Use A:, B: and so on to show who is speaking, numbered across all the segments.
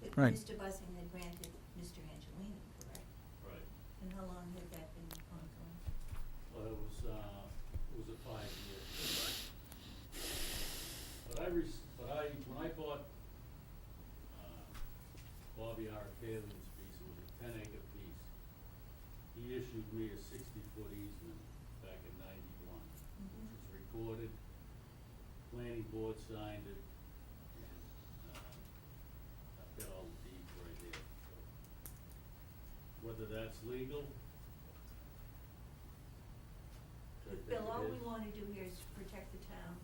A: But
B: Right.
A: Mr. Bussing had granted Mr. Angelini, correct?
C: Right,
A: And how long had that been ongoing?
C: well, it was, uh, it was a five-year. But I rec- but I, when I bought, uh, Bobby R. Kalin's piece, it was a ten-acre piece. He issued me a sixty-foot easement back in ninety-one, which was recorded, planning board signed it, and, uh, I've got all the deeds right here, so. Whether that's legal,
D: I think
A: Bill,
D: it
A: all we
D: is.
A: wanna do here is protect the town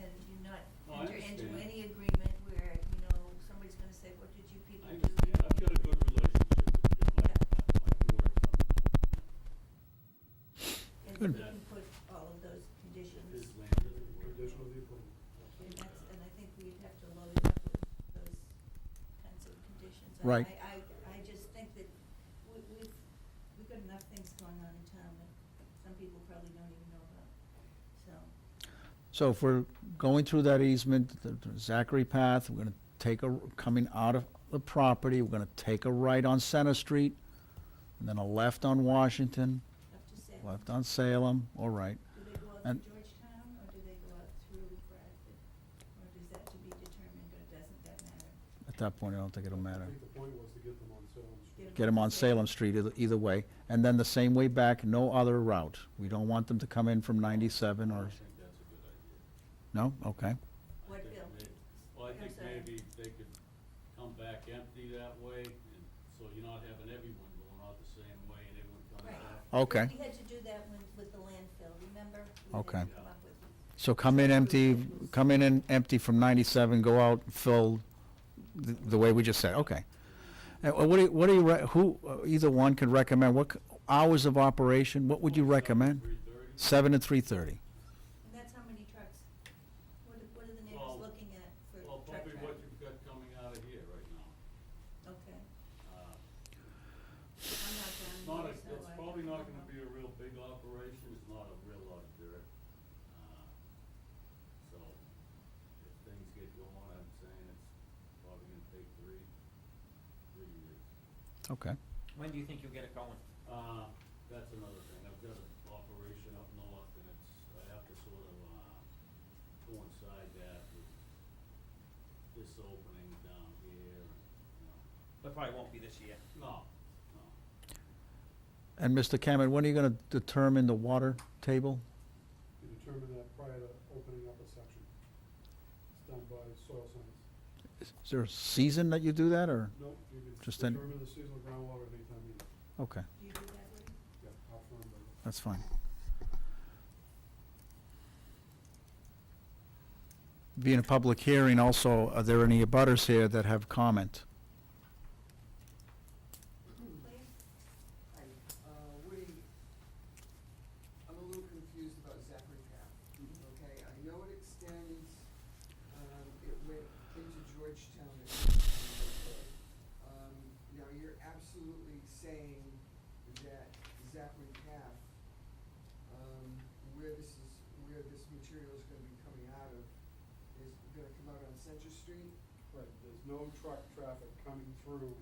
A: and do not
C: No, I
A: enter into
C: understand.
A: any agreement where, you know, somebody's gonna say, what did you people
C: I
A: do?
C: understand, I've got a good relationship with Jim, I, I can work something out,
A: And
B: Good.
A: we can put all of those
C: if
A: conditions,
C: his land doesn't work out.
E: Conditional the approval.
A: and that's, and I think we'd have to load it up with those kinds of conditions. And
B: Right.
A: I, I, I just think that we, we've, we've got enough things going on in town that some people probably don't even know about, so.
B: So if we're going through that easement, the the Zachary Path, we're gonna take a, coming out of the property, we're gonna take a right on Center Street, and then a left on Washington,
A: Up to Salem.
B: left on Salem, all right.
A: Do they go out
B: And-
A: through Georgetown, or do they go out through Bradford? Or does that to be determined, or doesn't that matter?
B: At that point, I don't think it'll matter.
E: I think the point was to get them on Salem Street.
B: Get them on Salem Street either, either way, and then the same way back, no other route. We don't want them to come in from ninety-seven
C: I
B: or,
C: think that's a good idea.
B: no, okay,
C: I
A: What
C: think
A: bill?
C: may- Well, I
A: I'm
C: think
A: sorry.
C: maybe they could come back empty that way, and, so you're not having everyone going out the same way and everyone coming
A: Right.
C: back.
B: okay.
A: We had to do that when, with the landfill, remember?
B: Okay.
A: We had to come up with,
B: So come in empty, come in and empty from ninety-seven, go out full, the, the way we just said, okay. And wha- what do you, what do you, re- who, uh, either one could recommend, what, c- hours of operation, what would you recommend?
C: Three thirty?
B: Seven and
A: and
B: three-thirty,
A: that's how many trucks, what, are- what are the
C: Well-
A: neighbors looking at for
C: Well,
A: truck
C: probably what
A: traffic?
C: you've got coming out of here right now.
A: Okay,
C: Uh,
A: I'm not down
C: Not a,
A: here, so
C: it's
A: I
C: probably
A: don't
C: not
A: know.
C: gonna be a real big operation, it's not a real lot of dirt. Uh, So, if things get going, I'm saying it's probably gonna take three, three years.
B: okay.
F: When do you think you'll get it going?
C: Uh, that's another thing, I've got an operation up north and it's, I have to sort of, uh, coincide that with this opening down here and, you know,
F: But probably won't be this year.
C: no, no.
B: And Mr. Cameron, when are you gonna determine the water table?
E: You determine that prior to opening up a section. It's done by soil science.
B: Is is there a season that you do that, or,
E: Nope, you can
B: Just then-
E: determine the seasonal groundwater at any time you, need.
B: okay,
A: Do you do that, Woody?
E: yeah, how firm, but
B: that's fine. Being a public hearing also, are there any abutters here that have comment?
A: Please?
G: Hi, uh, Woody, I'm a little confused about Zachary Path, okay? I know it extends, um, it went into Georgetown, at one time, okay? Um, now you're absolutely saying that Zachary Path, um, where this is, where this material is gonna be coming out of, is gonna come out on Center Street?
E: Right, there's no truck traffic coming through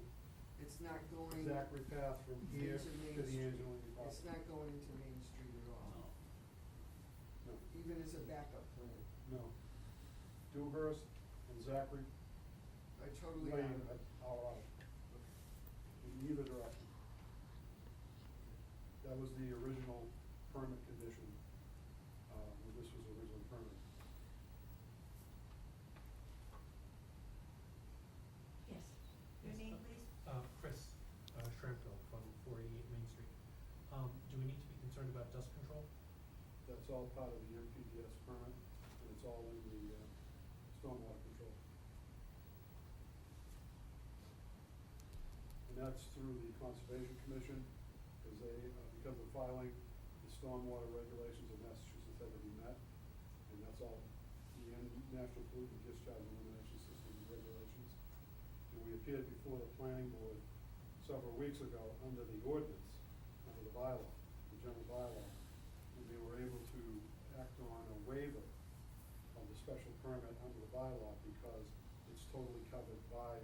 G: It's not going,
E: Zachary Path from here
G: Into Main
E: to the
G: Street.
E: Angelini
G: it's
E: property.
G: not going into Main Street at all,
C: No.
E: No,
G: even as a backup plan?
E: no. Dewhurst and Zachary
G: I totally
E: Lane
G: agree.
E: are out, in either direction. That was the original permit condition, uh, when this was originally permitted.
A: Yes. Your
H: Yes,
A: name,
H: uh,
A: please?
H: Uh, Chris uh, Shramko from four eighty-eight Main Street. Um, do we need to be concerned about dust control?
E: That's all part of the MPDS permit, and it's all in the uh, stormwater control. And that's through the Conservation Commission, because they, uh, because of filing, the stormwater regulations of Massachusetts have to be met. And that's all the N- National Pollutant Discharge Elimination System regulations. And we appeared before the planning board several weeks ago under the ordinance, under the bylaw, the general bylaw. And they were able to act on a waiver of the special permit under the bylaw because it's totally covered by